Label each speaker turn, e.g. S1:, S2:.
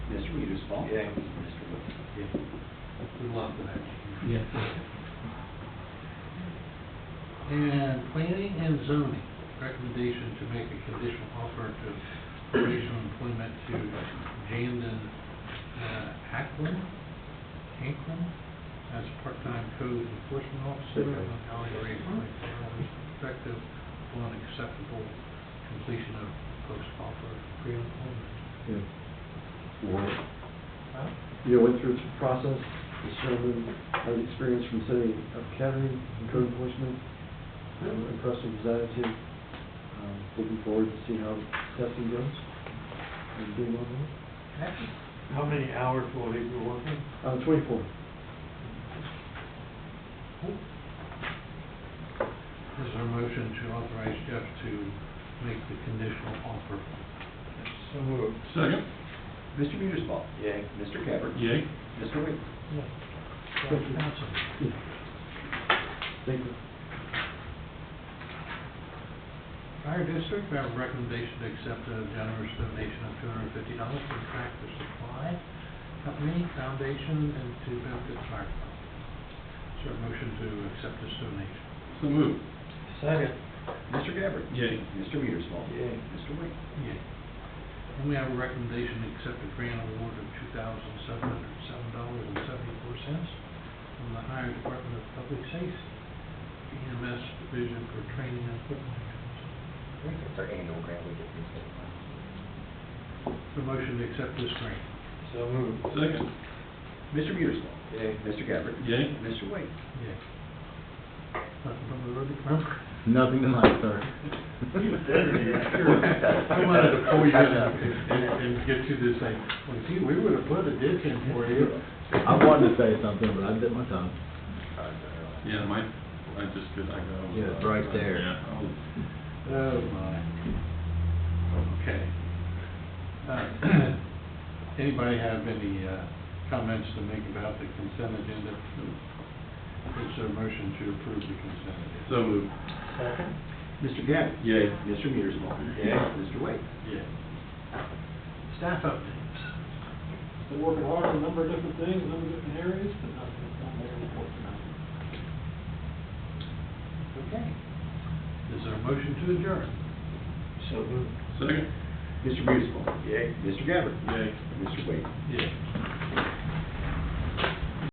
S1: Mr. Reader's fault.
S2: Yeah.
S3: We love that.
S4: Yeah.
S3: And planning and zoning, recommendation to make a conditional offer to provisional employment to Jandon uh, Hacklin, Hanklin, as part-time code enforcement officer on hourly rate of twenty-four hours effective upon acceptable completion of post-offer pre-employment.
S5: Yeah. Warrant. You know, went through this process, determined, had experience from city of Kettering and code enforcement. I'm Impressed with his attitude. Um, Looking forward to seeing how testing goes. And being on that.
S2: How many hours will he be working?
S5: Uh, twenty-four.
S3: This is our motion to authorize Jeff to make the conditional offer.
S2: So moved.
S4: Second?
S1: Mr. Reader's fault.
S2: Yay.
S1: Mr. Gabbard.
S4: Yay.
S1: Mr. Wiggins.
S5: Thank you. Yeah. Thank you.
S3: Fire district, I have a recommendation to accept a generous donation of two hundred and fifty dollars from Tractor Supply Company Foundation and to benefit the fire department. Is there a motion to accept this donation?
S4: So move.
S2: Second.
S1: Mr. Gabbard.
S4: Yay.
S1: Mr. Reader's fault.
S2: Yay.
S1: Mr. Wiggins.
S3: Yay. And we have a recommendation to accept a grant award of two thousand seven hundred and seven dollars and seventy-four cents from the Ohio Department of Public Safety EMS Division for Training and Equipment.
S6: It's our annual grant we get from the
S3: Is
S6: state.
S3: there a motion to accept this grant?
S2: So moved.
S4: Second?
S1: Mr. Reader's fault.
S2: Yay.
S1: Mr. Gabbard.
S4: Yay.
S1: Mr. Wiggins.
S3: Yay. Nothing from the road department?
S7: Nothing tonight, sir.
S3: I wanted to pull you in and, and get you this thing. Well, gee, we would have put a ditch in for you.
S7: I wanted to say something, but I bit my tongue.
S4: Yeah, my, I just could, I got.
S7: Yeah, it's right there.
S4: Yeah, I was-
S3: Oh, my. Okay. Uh, Anybody have any, uh, comments to make about the consent agenda? Is there a motion to approve the consent agenda?
S4: So move.
S2: Second.
S1: Mr. Gabbard.
S4: Yay.
S1: Mr. Reader's fault.
S2: Yay.
S1: Mr. Wiggins.
S3: Yeah. Staff updates.
S8: Been working hard on a number of different things, a number of different areas, but nothing, not there to report tonight.
S1: Okay.
S3: Is there a motion to adjourn?
S2: So moved.
S4: Second?
S1: Mr. Reader's fault.
S2: Yay.
S1: Mr. Gabbard.
S4: Yay.
S1: Mr. Wiggins.
S3: Yeah.